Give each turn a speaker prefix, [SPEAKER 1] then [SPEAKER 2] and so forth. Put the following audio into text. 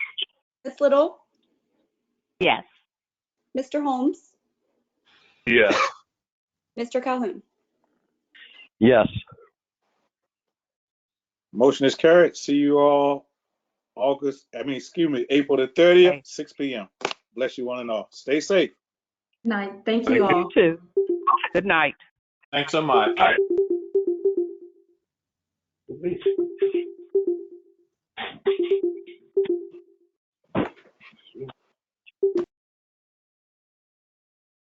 [SPEAKER 1] Ms. Little,
[SPEAKER 2] Yes.
[SPEAKER 1] Mr. Holmes,
[SPEAKER 3] Yes.
[SPEAKER 1] Mr. Calhoun.
[SPEAKER 3] Yes.
[SPEAKER 4] Motion is carried. See you all August, I mean, excuse me, April the thirtieth, six P M. Bless you one and all. Stay safe.
[SPEAKER 5] Night. Thank you all.
[SPEAKER 2] too. Good night.
[SPEAKER 6] Thanks so much.